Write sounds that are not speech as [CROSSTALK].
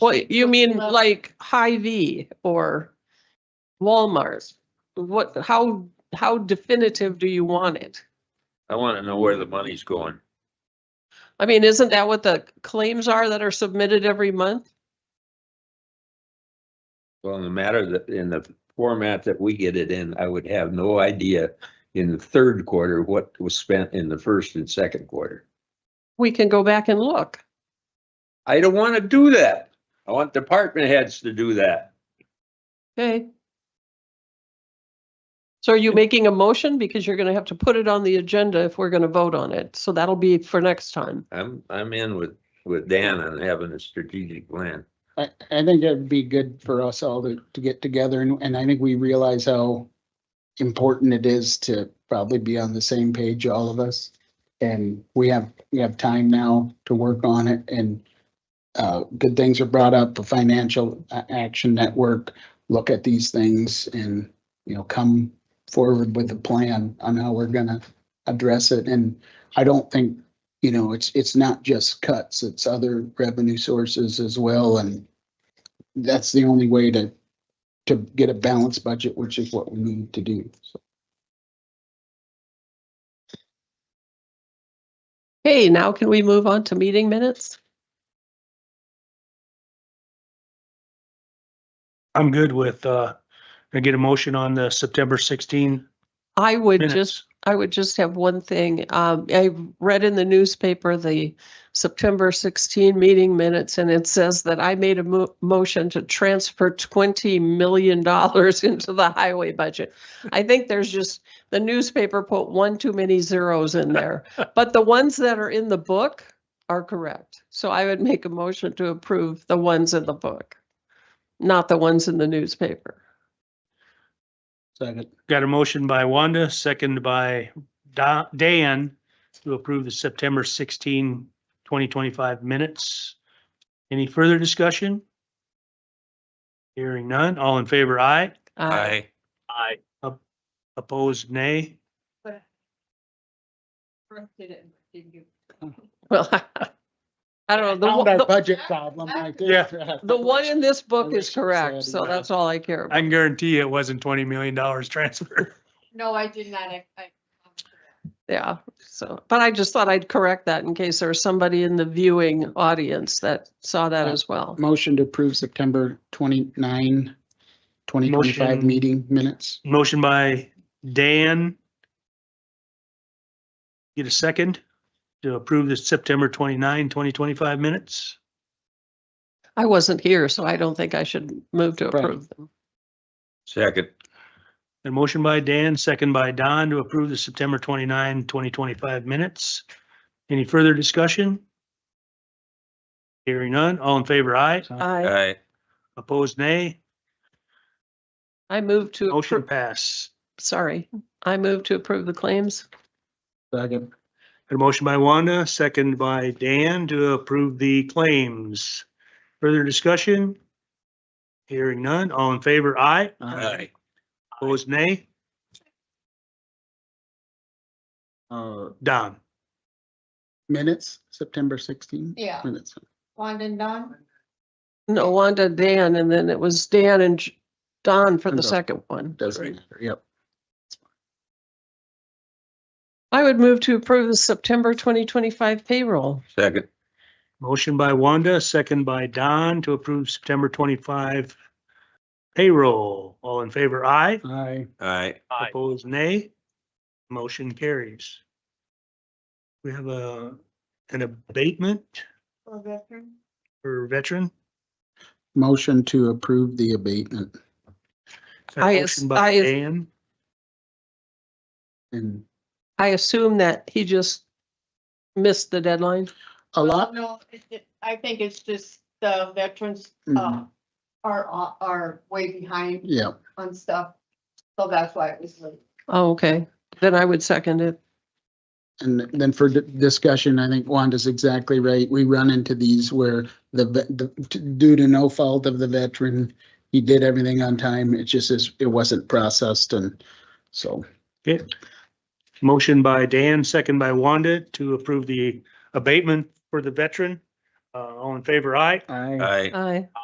Well, you mean Well- like Hy-Vee or Walmart's? What, how, how definitive do you want it? I want to know where the money's going. I mean, isn't that what the claims are that are submitted every month? Well, in the matter that, in the format that we get it in, I would have no idea in the third quarter what was spent in the first and second quarter. We can go back and look. I don't want to do that. I want department heads to do that. Okay. So are you making a motion? Because you're gonna have to put it on the agenda if we're gonna vote on it. So that'll be for next time. I'm, I'm in with, with Dan on having a strategic plan. I, I think it'd be good for us all to, to get together and, and I think we realize how important it is to probably be on the same page, all of us. And we have, we have time now to work on it and uh, good things are brought up, the Financial A- Action Network, look at these things and, you know, come forward with a plan on how we're gonna address it. And I don't think, you know, it's, it's not just cuts, it's other revenue sources as well and that's the only way to, to get a balanced budget, which is what we need to do. So, Hey, now can we move on to meeting minutes? I'm good with, uh, I get a motion on the September 16 I would just minutes. I would just have one thing. Um, I read in the newspaper the September 16 meeting minutes, and it says that I made a mo- motion to transfer $20 million [LAUGHS] into the highway budget. I think there's just, the newspaper put one too many zeros in there, but the ones that are in the book are correct. So I would make a motion to approve the ones in the book, not the ones in the newspaper. Second, Got a motion by Wanda, second by Da- Dan to approve the September 16, 2025 minutes. Any further discussion? Hearing none. All in favor, aye. Uh, Aye. Opposed, nay. [LAUGHS] Well, [LAUGHS] I don't know. the found one- our the- budget problem right there. Yeah. The one in this book Really is correct, so sad. that's all I care about. I can guarantee you it wasn't $20 million [LAUGHS] transfer. No, I did not. I, I. Yeah, so, but I just thought I'd correct that in case there was somebody in the viewing audience that saw that as well. Motion to approve September 29, 2025 Motion. meeting minutes. Motion by Dan. Get a second to approve the September 29, 2025 minutes. I wasn't here, so I don't think I should move to Right. approve them. Second, A motion by Dan, second by Don to approve the September 29, 2025 minutes. Any further discussion? Hearing none. All in favor, aye. I, aye, Opposed, nay. I move to, Motion appro- pass. sorry, I move to approve the claims. Second, A motion by Wanda, second by Dan to approve the claims. Further discussion? Hearing none. All in favor, aye. uh, aye. Opposed, nay. uh, Don. minutes, September sixteen. Yeah, Minutes. Wanda and Don. No, Wanda, Dan, and then it was Dan and J- Don for the And Don. second one. Doesn't matter. Yep. I would move to approve the September 2025 payroll. Second, Motion by Wanda, second by Don to approve September 25 payroll. All in favor, aye. Aye. aye. Opposed, nay. Motion carries. We have a, an abatement for veteran. for veteran. Motion to approve the abatement A I as- Motion by I as- Dan. and I assume that he just missed the deadline. a lot. Oh, No, it- it- I think it's just the veterans, Mm, uh, are, are- are way behind Yeah, on stuff. So that's why it was late. Oh, okay. Then I would second it. and then for di- discussion, I think Wanda's exactly right. We run into these where the, ve- the, due to no fault of the veteran, he did everything on time. It just is, it wasn't processed and so. Okay. Motion by Dan, second by Wanda to approve the abatement for the veteran. Uh, all in favor, aye? I. I. Aye.